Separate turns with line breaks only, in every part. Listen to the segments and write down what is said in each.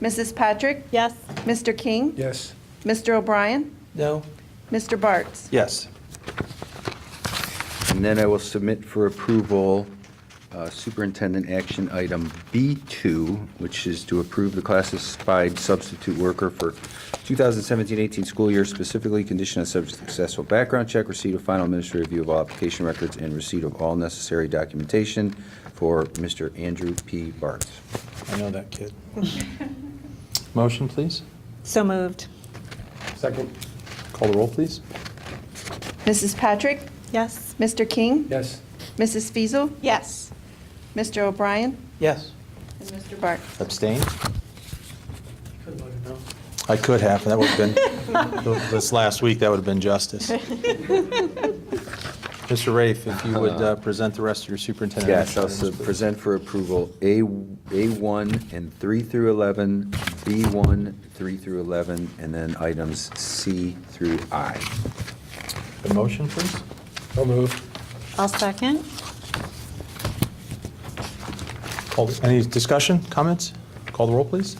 Mrs. Patrick?
Yes.
Mr. King?
Yes.
Mr. O'Brien?
No?
Mr. Bartz?
Yes. And then I will submit for approval uh, Superintendent Action Item B2, which is to approve the classified substitute worker for 2017-18 school year, specifically conditioned on successful background check, receipt of final administrative review of all application records, and receipt of all necessary documentation for Mr. Andrew P. Bartz.
I know that kid. Motion, please.
So moved.
Second. Call the roll, please.
Mrs. Patrick?
Yes.
Mr. King?
Yes.
Mrs. Fiesel,
Yes.
Mr. O'Brien?
Yes.
And Mr. Bartz?
Abstain? I could have, that would have been, this last week, that would have been justice. Mr. Rafe, if you would uh, present the rest of your superintendent.
Yes, I'll
actions,
sub-
please.
present for approval A, A1 and 3 through 11, B1, 3 through 11, and then items C through I.
The motion, please. I'll move.
I'll second.
Call- Any discussion, comments? Call the roll, please.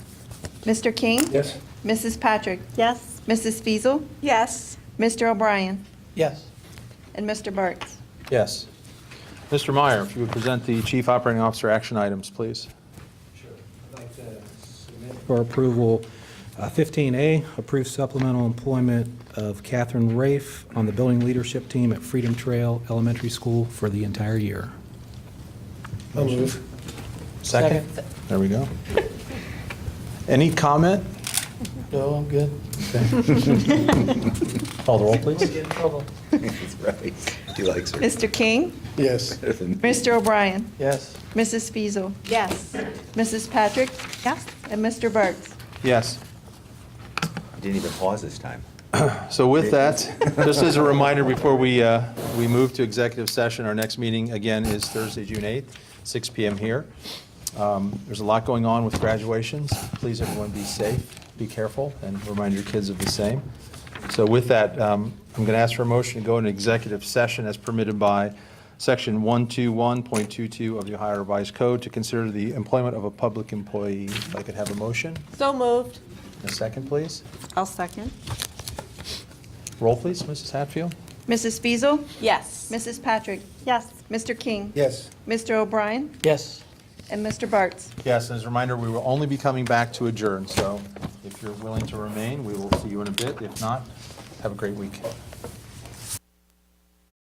Mr. King?
Yes.
Mrs. Patrick?
Yes.
Mrs. Fiesel,
Yes.
Mr. O'Brien?
Yes.
And Mr. Bartz?
Yes. Mr. Meyer, if you would present the chief operating officer action items, please.
Sure. I'd like to submit For approval, uh, 15A, approve supplemental employment of Catherine Rafe on the building leadership team at Freedom Trail Elementary School for the entire year.
I'll move.
Second? There we go. Any comment?
No, I'm good.
Call the roll, please.
Right, he likes her.
Mr. King?
Yes.
Mr. O'Brien?
Yes.
Mrs. Fiesel,
Yes.
Mrs. Patrick?
Yes.
And Mr. Bartz?
Yes.
Didn't even pause this time.
So with that, just as a reminder, before we, uh, we move to executive session, our next meeting, again, is Thursday, June 8th, 6 PM here. Um, There's a lot going on with graduations. Please, everyone, be safe, be careful, and remind your kids of the same. So with that, um, I'm going to ask for a motion to go into executive session as permitted by Section 121.22 of the Ohio Revised Code to consider the employment of a public employee. If I could have a motion,
So moved.
a second, please.
I'll second.
Roll, please, Mrs. Hatfield.
Mrs. Fiesel,
Yes.
Mrs. Patrick?
Yes.
Mr. King?
Yes.
Mr. O'Brien?
Yes.
And Mr. Bartz?
Yes, as a reminder, we will only be coming back to adjourn, so if you're willing to remain, we will see you in a bit. If not, have a great week.